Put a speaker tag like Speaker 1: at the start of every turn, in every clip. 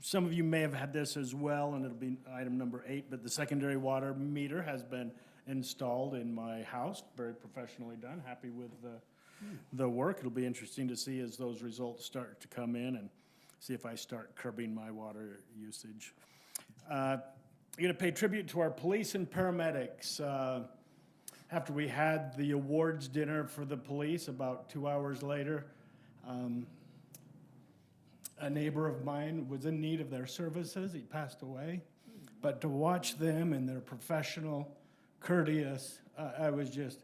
Speaker 1: some of you may have had this as well, and it'll be item number eight, but the secondary water meter has been installed in my house, very professionally done, happy with the, the work. It'll be interesting to see as those results start to come in and see if I start curbing my water usage. Uh, I'm going to pay tribute to our police and paramedics. Uh, After we had the awards dinner for the police, about two hours later, um, a neighbor of mine was in need of their services. He passed away. But to watch them and their professional, courteous, uh, I was just,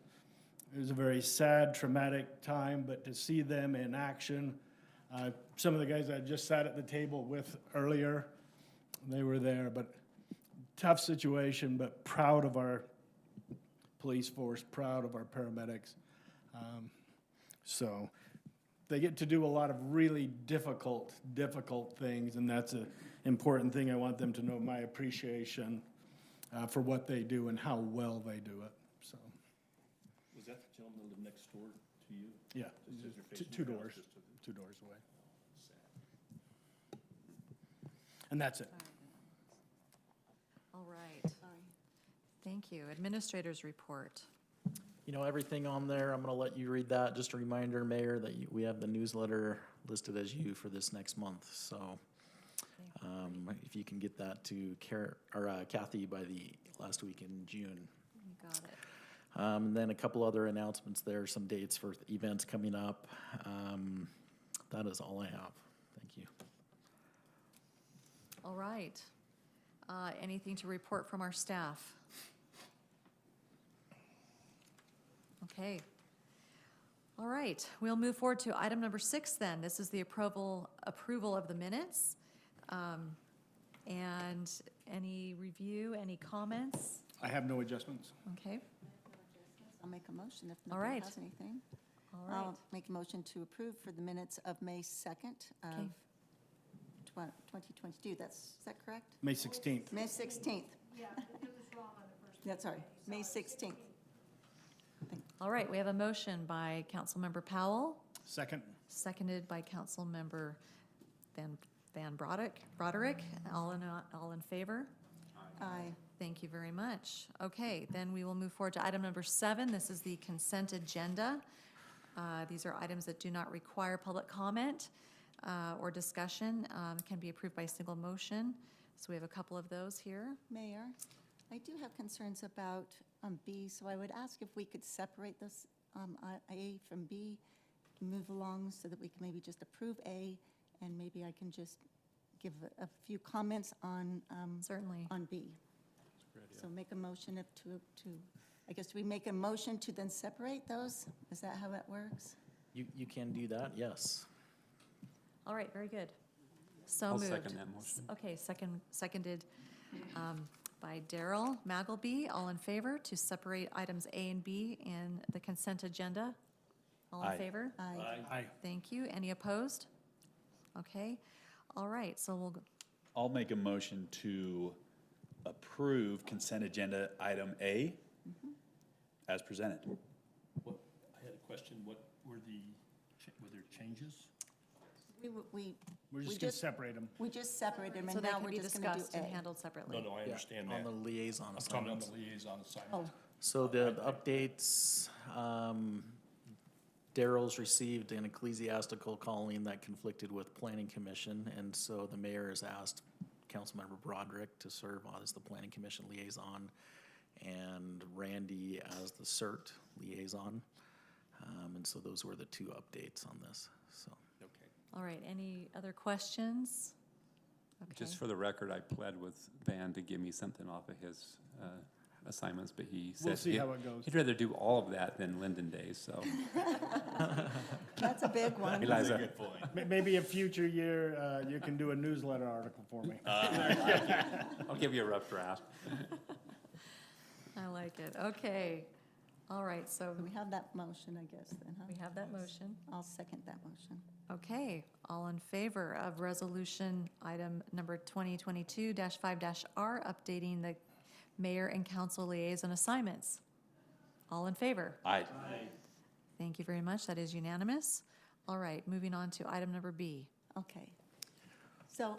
Speaker 1: it was a very sad, traumatic time, but to see them in action, uh, some of the guys I just sat at the table with earlier, they were there, but tough situation, but proud of our police force, proud of our paramedics. Um, so they get to do a lot of really difficult, difficult things, and that's an important thing. I want them to know my appreciation uh, for what they do and how well they do it. So,
Speaker 2: Was that the gentleman that lived next door to you?
Speaker 1: yeah,
Speaker 2: Just as you're
Speaker 1: two,
Speaker 2: facing
Speaker 1: two
Speaker 2: your house,
Speaker 1: doors,
Speaker 2: just to the-
Speaker 1: two doors away. And that's it.
Speaker 3: All right. Thank you. Administrators report.
Speaker 4: You know, everything on there, I'm gonna let you read that. Just a reminder, Mayor, that you- we have the newsletter listed as you for this next month, so. Um, if you can get that to Car, or uh, Kathy by the last week in June.
Speaker 3: You got it.
Speaker 4: Um, and then a couple other announcements there, some dates for events coming up. Um, that is all I have. Thank you.
Speaker 3: All right. Uh, Anything to report from our staff? Okay. All right, we'll move forward to item number six then. This is the approval, approval of the minutes. Um, And any review, any comments?
Speaker 1: I have no adjustments.
Speaker 3: Okay,
Speaker 5: I'll make a motion if
Speaker 3: All
Speaker 5: nobody
Speaker 3: right.
Speaker 5: has anything.
Speaker 3: all right.
Speaker 5: I'll make a motion to approve for the minutes of May 2nd
Speaker 3: Okay.
Speaker 5: of twen- 2022. That's, is that correct?
Speaker 1: May 16th.
Speaker 5: May 16th. Yeah, it was wrong on the first. That's all right. May 16th.
Speaker 3: All right, we have a motion by Councilmember Powell.
Speaker 1: Second.
Speaker 3: Seconded by Councilmember Van, Van Broderick, Broderick, all in, all in favor?
Speaker 5: Aye.
Speaker 3: Thank you very much. Okay, then we will move forward to item number seven. This is the consent agenda. Uh, These are items that do not require public comment uh, or discussion, um, can be approved by single motion. So we have a couple of those here.
Speaker 5: Mayor, I do have concerns about um, B, so I would ask if we could separate this um, I- A from B, move along so that we can maybe just approve A, and maybe I can just give a- a few comments on um,
Speaker 3: Certainly.
Speaker 5: on B. So make a motion of to, to, I guess we make a motion to then separate those? Is that how it works?
Speaker 4: You, you can do that, yes.
Speaker 3: All right, very good. So
Speaker 2: I'll
Speaker 3: moved.
Speaker 2: second that motion.
Speaker 3: Okay, second, seconded um, by Daryl Magleby. All in favor to separate items A and B in the consent agenda? All in
Speaker 2: Aye.
Speaker 3: favor?
Speaker 5: Aye.
Speaker 1: Aye.
Speaker 3: Thank you. Any opposed? Okay, all right, so we'll, go-
Speaker 2: I'll make a motion to approve consent agenda item A as presented. What, I had a question, what were the, were there changes?
Speaker 5: We, w- we,
Speaker 1: We're
Speaker 5: We
Speaker 1: just going to
Speaker 5: just-
Speaker 1: separate them.
Speaker 5: we just separated them,
Speaker 3: so
Speaker 5: and
Speaker 3: they
Speaker 5: now
Speaker 3: can
Speaker 5: we're
Speaker 3: be
Speaker 5: just gonna do
Speaker 3: discussed and
Speaker 5: A.
Speaker 3: handled
Speaker 6: No,
Speaker 3: separately.
Speaker 6: no, I
Speaker 4: Yeah,
Speaker 6: understand that.
Speaker 4: On the liaison
Speaker 6: I'm talking on
Speaker 4: assignments.
Speaker 6: the liaison assignment.
Speaker 5: Oh,
Speaker 4: So the updates, um, Daryl's received an ecclesiastical calling that conflicted with planning commission, and so the mayor has asked Councilmember Broderick to serve as the planning commission liaison, and Randy as the CERT liaison. Um, and so those were the two updates on this, so.
Speaker 3: All right, any other questions? Okay,
Speaker 7: Just for the record, I pled with Van to give me something off of his uh, assignments, but he said.
Speaker 1: We'll see
Speaker 7: he-
Speaker 1: how it goes.
Speaker 7: He'd rather do all of that than Linden Days, so.
Speaker 5: that's a big one.
Speaker 7: Eliza,
Speaker 2: Good point.
Speaker 1: May- Maybe a future year, uh, you can do a newsletter article for me.
Speaker 7: I'll give you a rough draft.
Speaker 3: I like it. Okay, all right, so
Speaker 5: We have that motion, I guess, then,
Speaker 3: we
Speaker 5: huh?
Speaker 3: have that motion.
Speaker 5: I'll second that motion.
Speaker 3: Okay, all in favor of resolution item number 2022-5-R, updating the mayor and council liaison assignments? All in favor?
Speaker 2: Aye.
Speaker 3: Thank you very much, that is unanimous. All right, moving on to item number B.
Speaker 5: Okay. So